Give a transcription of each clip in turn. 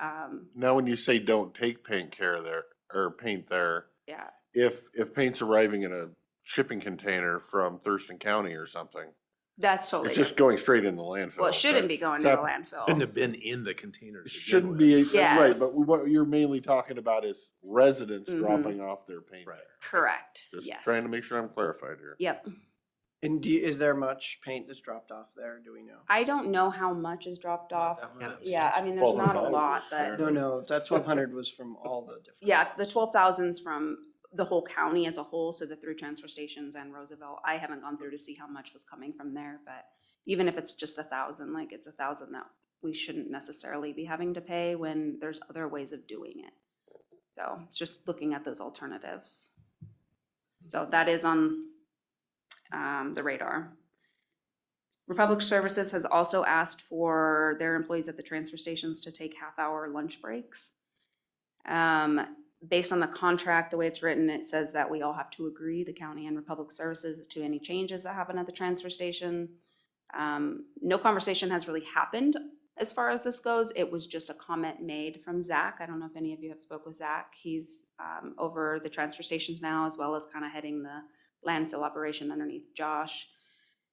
Um, Now, when you say don't take paint care there, or paint there, yeah, if, if paint's arriving in a shipping container from Thurston County or something, that's totally, it's just different. going straight in the landfill. Oh, well, it shouldn't be going to That's the sep- landfill. have been in the container. It Oh. Shouldn't be, right, but Yes. what you're mainly talking about is residents Mhm. dropping off their paint. Right. there. Correct, Just yes. trying to make sure I'm clarified here. Yep. And do, you- is there much paint that's dropped off there? Do we know? I don't know how much is dropped off. much. Yeah, I mean, there's Well, not a there's lot, always- but No, no, that twelve hundred was from all the different. yeah, the twelve thousands from the whole county as a whole, so the three transfer stations and Roosevelt. I haven't gone through to see how much was coming from there, but even if it's just a thousand, like it's a thousand that we shouldn't necessarily be having to pay when there's other ways of doing it. So it's just looking at those alternatives. So that is on um, the radar. Republic Services has also asked for their employees at the transfer stations to take half-hour lunch breaks. Um, based on the contract, the way it's written, it says that we all have to agree, the county and Republic Services, to any changes that happen at the transfer station. Um, no conversation has really happened as far as this goes. It was just a comment made from Zach. I don't know if any of you have spoke with Zach. He's, um, over the transfer stations now, as well as kind of heading the landfill operation underneath Josh.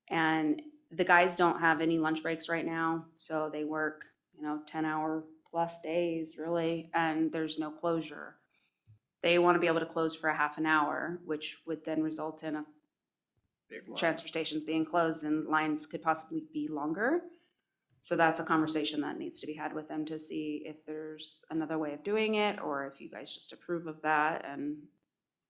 And the guys don't have any lunch breaks right now, so they work, you know, ten hour plus days really, and there's no closure. They want to be able to close for a half an hour, which would then result in a big ones. transfer stations being closed and lines could possibly be longer. So that's a conversation that needs to be had with them to see if there's another way of doing it, or if you guys just approve of that and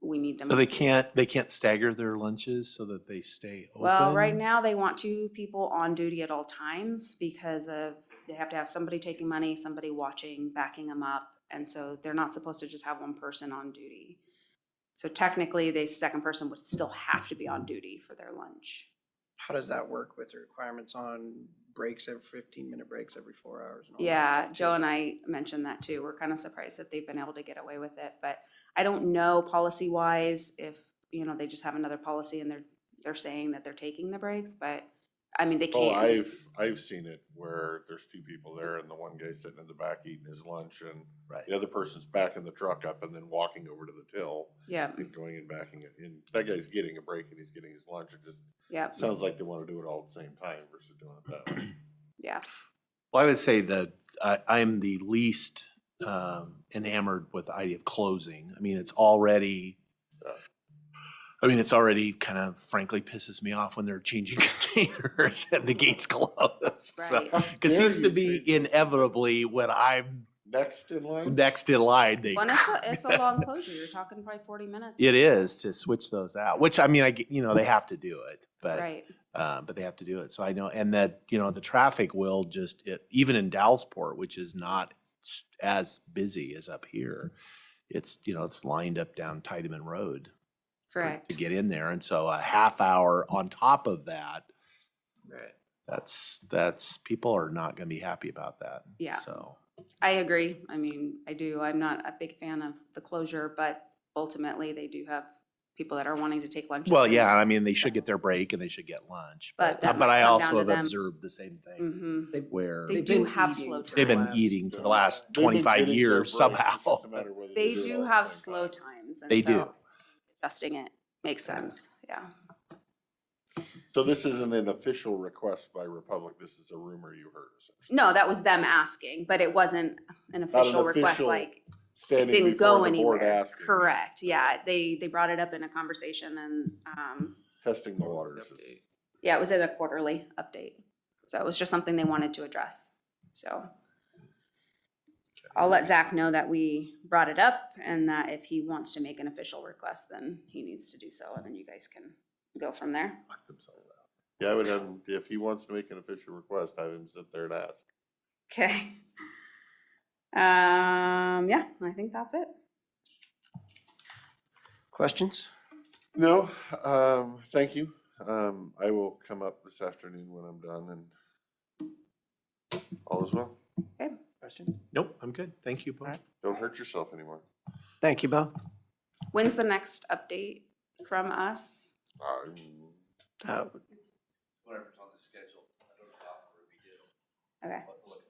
we need to. So they move- can't, they can't stagger their lunches so that they stay open? Well, right now, they want two people on duty at all times because of, they have to have somebody taking money, somebody watching, backing them up. And so they're not supposed to just have one person on duty. So technically, the second person would still have to be on duty for their lunch. How does that work with the requirements on breaks every fifteen minute breaks every four hours? and all that Yeah, stuff, Joe too? and I mentioned that too. We're kind of surprised that they've been able to get away with it, but I don't know policy wise if, you know, they just have another policy and they're, they're saying that they're taking the breaks, but I mean, they Oh, can. I've, I've seen it where there's two people there and the one guy's sitting in the back eating his lunch and Right. the other person's backing the truck up and then walking over to the till Yeah, and going and backing it. And that guy's getting a break and he's getting his lunch. It just yeah, sounds like they want to do it all at the same time versus doing it that way. yeah. Well, I would say that I, I'm the least um, enamored with the idea of closing. I mean, it's already, Yeah. I mean, it's already kind of frankly pisses me off when they're changing containers and the gates closed. Right. Because Dare seems you, to be Jason. inevitably when I'm Next in line? next in line, they. Well, and it's a, it's a long closure. You're talking probably forty minutes. It is to switch those out, which I mean, I, g- you know, they have to do it, but. Right, uh, but they have to do it. So I know, and that, you know, the traffic will just, it- even in Dallasport, which is not s- as busy as up here, it's, you know, it's lined up down Tiedemann Road. for- correct. To get in there. And so a half hour on top of that, Right. that's, that's, people are not going to be happy about that. Yeah. So, I agree. I mean, I do. I'm not a big fan of the closure, but ultimately they do have people that are wanting to take lunches. well, yeah, I mean, they should get their break and they should get lunch. But that But might I come down also to have them. observed the same thing Mm-hmm. They- where They They've do been have eating slow for the they've been last- eating for the last They've been 25 getting their years breaks, it's just somehow. a matter of whether They do it do all at the have same slow time. times and They do. so adjusting it makes Yeah. sense. Yeah. So this isn't an official request by Republic. This is a rumor you heard. essentially. No, that was them asking, but it wasn't an official request official like it Standing didn't go before the board anywhere. asking, Correct. Yeah, they, they brought it up in a conversation and, um, Testing the waters. is- Update. Yeah, it was in a quarterly update. So it was just something they wanted to address. So I'll let Zach know that we brought it up and that if he wants to make an official request, then he needs to do so. And then you guys can go from there. Knock themselves out. Yeah, I would have, him- if he wants to make an official request, have him sit there and ask. Okay. Um, yeah, I think that's it. Questions? No, um, thank you. Um, I will come up this afternoon when I'm done and all is well. Question? Nope, I'm good. Thank you, Bob. Don't hurt yourself anymore. Thank you both. When's the next update from us? Um, Uh, whatever's on the schedule. I don't know how we're gonna be doing. Okay. What- what